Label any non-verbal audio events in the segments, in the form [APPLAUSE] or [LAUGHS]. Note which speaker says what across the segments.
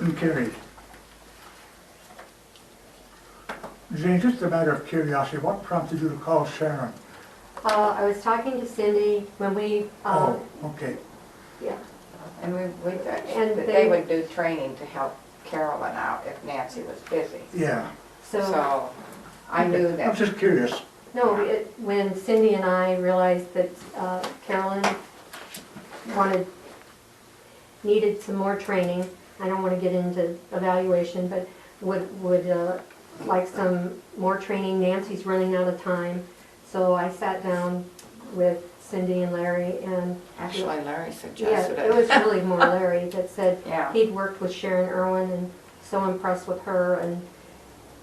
Speaker 1: Motion carried. Jane, just a matter of curiosity, what prompted you to call Sharon?
Speaker 2: Uh, I was talking to Cindy when we, uh,
Speaker 1: Oh, okay,
Speaker 2: yeah,
Speaker 3: And we, we,
Speaker 2: And
Speaker 3: and
Speaker 2: they-
Speaker 3: they would do training to help Carolyn out if Nancy was busy.
Speaker 1: yeah.
Speaker 2: so,
Speaker 3: So I knew
Speaker 1: I'm
Speaker 3: that,
Speaker 1: just curious.
Speaker 2: no, it- when Cindy and I realized that uh, Carolyn wanted, needed some more training, I don't want to get into evaluation, but would, would uh, like some more training, Nancy's running out of time. So I sat down with Cindy and Larry and,
Speaker 3: actually Larry
Speaker 2: yeah,
Speaker 3: suggested
Speaker 2: it was
Speaker 3: it.
Speaker 2: really more Larry that said,
Speaker 3: [LAUGHS] Yeah,
Speaker 2: He'd worked with Sharon Irwin and so impressed with her and,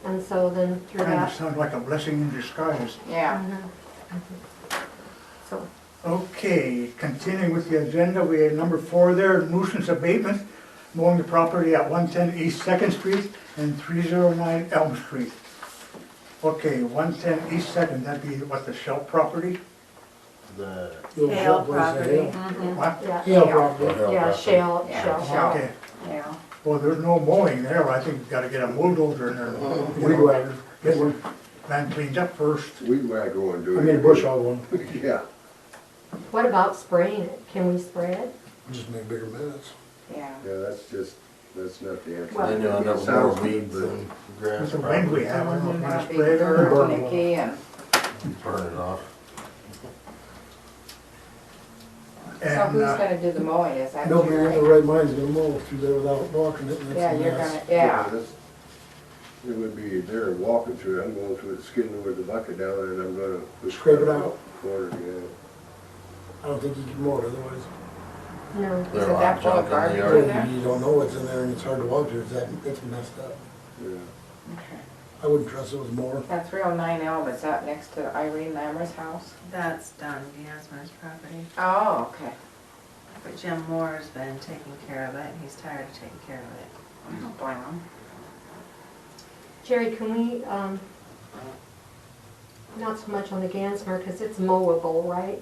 Speaker 2: and so then through
Speaker 1: Kind of
Speaker 2: that.
Speaker 1: sounds like a blessing in disguise.
Speaker 3: yeah.
Speaker 2: Mhm. So,
Speaker 1: Okay, continuing with the agenda, we had number four there, nuisance abatement, mowing the property at 110 East Second Street and 309 Elm Street. Okay, 110 East Second, that'd be what, the Shell property?
Speaker 4: The,
Speaker 5: Hale property.
Speaker 3: Mhm.
Speaker 1: What?
Speaker 2: yeah,
Speaker 5: Hale
Speaker 3: Yeah.
Speaker 5: property.
Speaker 2: yeah, shale,
Speaker 3: Yeah.
Speaker 2: shale.
Speaker 3: Shale.
Speaker 1: Okay,
Speaker 2: Mm.
Speaker 3: Yeah,
Speaker 1: well, there's no mowing there, I think you gotta get a bulldozer in there. and, you
Speaker 5: Weed
Speaker 1: know,
Speaker 5: whacker.
Speaker 1: Get the land cleaned up first.
Speaker 4: we might go and do
Speaker 5: I
Speaker 4: it.
Speaker 5: mean, bush hog one,
Speaker 4: [LAUGHS] Yeah.
Speaker 2: What about spraying it? Can we spray it?
Speaker 5: just make bigger mess.
Speaker 3: yeah.
Speaker 4: Yeah, that's just, that's not the answer.
Speaker 2: Well-
Speaker 6: Then you'll end up with more weeds and grass.
Speaker 1: With the wind we have, I don't know if you
Speaker 3: Someone might
Speaker 1: wanna
Speaker 3: be
Speaker 1: spray it or-
Speaker 3: hurt, Nikki and
Speaker 6: Burn it off.
Speaker 3: so
Speaker 1: And,
Speaker 3: who's
Speaker 1: uh,
Speaker 3: gonna do the mowing, is that you?
Speaker 5: No man in
Speaker 3: Rick?
Speaker 5: their right mind's gonna mow through there without blocking it, and
Speaker 3: Yeah,
Speaker 5: that's a
Speaker 3: you're
Speaker 5: mess.
Speaker 3: gonna, yeah,
Speaker 4: that's- It would be there walking through, I'm going through it, skidding with the bucket down and I'm gonna.
Speaker 5: Scrape it out.
Speaker 4: Corner, yeah.
Speaker 5: I don't think you can mow it otherwise.
Speaker 2: No.
Speaker 6: There
Speaker 3: Is
Speaker 6: are
Speaker 3: it
Speaker 6: a
Speaker 3: that
Speaker 6: lot
Speaker 3: full
Speaker 6: of
Speaker 3: of
Speaker 6: junk in the
Speaker 3: garbage in
Speaker 6: yard.
Speaker 3: there?
Speaker 5: You don't know what's in there, and it's hard to walk through, it's that, it's messed up.
Speaker 4: Yeah.
Speaker 3: Okay.
Speaker 5: I wouldn't trust it with a mower.
Speaker 3: That's real nine Elm, is that next to Irene Lammer's house?
Speaker 7: That's done, Gansmer's property,
Speaker 3: Oh, okay.
Speaker 7: but Jim Moore's been taking care of it, and he's tired of taking care of it.
Speaker 3: I don't blame 'em.
Speaker 2: Jerry, can we, um, not so much on the Gansmer, because it's mowable, right?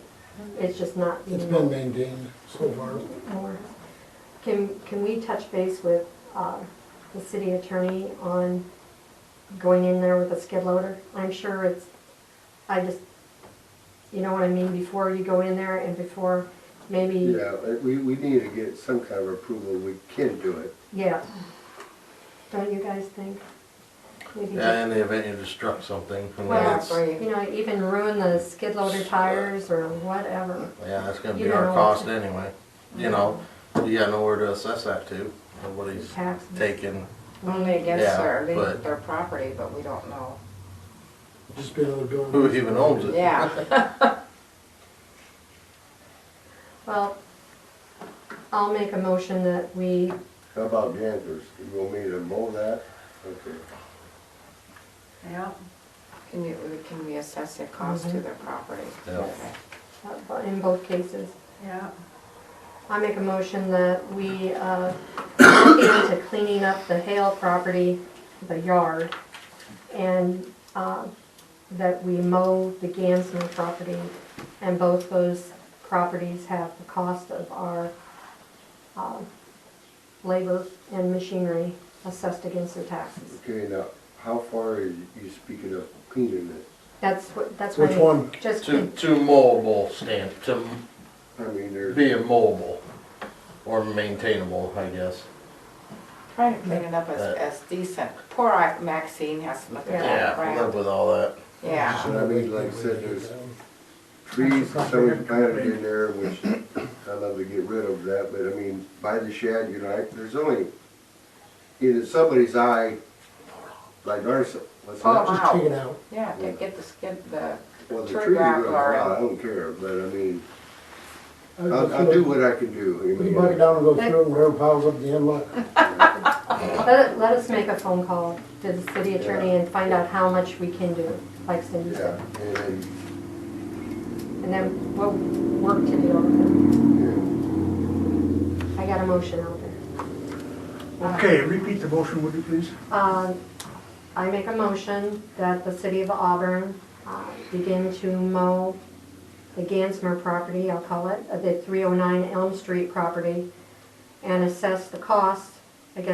Speaker 2: It's just not being
Speaker 5: It's been maintained so far.
Speaker 2: more. Can, can we touch base with uh, the city attorney on going in there with a skid loader? I'm sure it's, I just, you know what I mean, before you go in there and before maybe,
Speaker 4: Yeah, uh, we, we need to get some kind of approval, we can do it.
Speaker 2: yeah. Don't you guys think? Maybe
Speaker 6: Yeah,
Speaker 2: just,
Speaker 6: in the event you just struck something from
Speaker 2: Well,
Speaker 6: the, it's,
Speaker 3: Or
Speaker 6: yeah,
Speaker 3: you-
Speaker 2: you know, even ruin the skid loader tires or whatever.
Speaker 6: that's gonna
Speaker 2: You
Speaker 6: be
Speaker 2: don't
Speaker 6: our
Speaker 2: know.
Speaker 6: cost anyway. You know, you got nowhere to assess that to, nobody's
Speaker 2: Taxes.
Speaker 6: taking,
Speaker 3: Only against
Speaker 6: Yeah,
Speaker 3: their,
Speaker 6: but-
Speaker 3: their property, but we don't know.
Speaker 5: Just be another building.
Speaker 6: who even owns it?
Speaker 3: Yeah,
Speaker 2: Well, I'll make a motion that we,
Speaker 4: How about Gander's, you want me to mow that? Okay.
Speaker 7: Yep.
Speaker 3: can you, can we assess the cost to their property?
Speaker 6: Yeah.
Speaker 3: Okay.
Speaker 2: uh, in both cases,
Speaker 7: Yep.
Speaker 2: I make a motion that we uh, look into cleaning up the Hale property, the yard, and uh, that we mow the Gansmer property, and both those properties have the cost of our um, labor and machinery assessed against their taxes.
Speaker 4: Okay, now, how far are you you speaking of cleaning it?
Speaker 2: That's what, that's what.
Speaker 5: Which
Speaker 2: I-
Speaker 5: one?
Speaker 2: Just,
Speaker 6: To, to mowable stand, to
Speaker 4: I mean, there's.
Speaker 6: be mowable or maintainable, I guess.
Speaker 3: Trying to clean it up as,
Speaker 6: Uh,
Speaker 3: as decent. Poor I- Maxine has to look at that
Speaker 6: Yeah, live
Speaker 3: crap.
Speaker 6: with all that.
Speaker 3: Yeah,
Speaker 4: I mean, like I said, there's- trees, somebody planted in there, which I'd love to get rid of that, but I mean, by the shed, you know, I- there's only, in somebody's eye, like ours, what's
Speaker 3: Oh,
Speaker 4: that?
Speaker 3: my.
Speaker 5: Just take it out.
Speaker 3: yeah, to get the skid, the,
Speaker 4: Well, the
Speaker 3: Tree
Speaker 4: trees are
Speaker 3: gravel
Speaker 4: gonna
Speaker 3: or-
Speaker 4: fall, I don't care, but I mean,
Speaker 5: I-
Speaker 4: I'll, I'll do what I can do. I
Speaker 5: Put the
Speaker 4: mean,
Speaker 5: bucket down and go through it, and whatever piles up at the end, look.
Speaker 2: let let us make a phone call to the city attorney and find out how much we can do, like Cindy said.
Speaker 4: Yeah, and, then,
Speaker 2: And then what work to do over
Speaker 4: yeah,
Speaker 2: there. I got a motion out there.
Speaker 1: Okay, repeat the motion, would you please?
Speaker 2: Um, I make a motion that the city of Auburn uh, begin to mow the Gansmer oh property, I'll call it, uh, the 309 Elm Street property, and assess the cost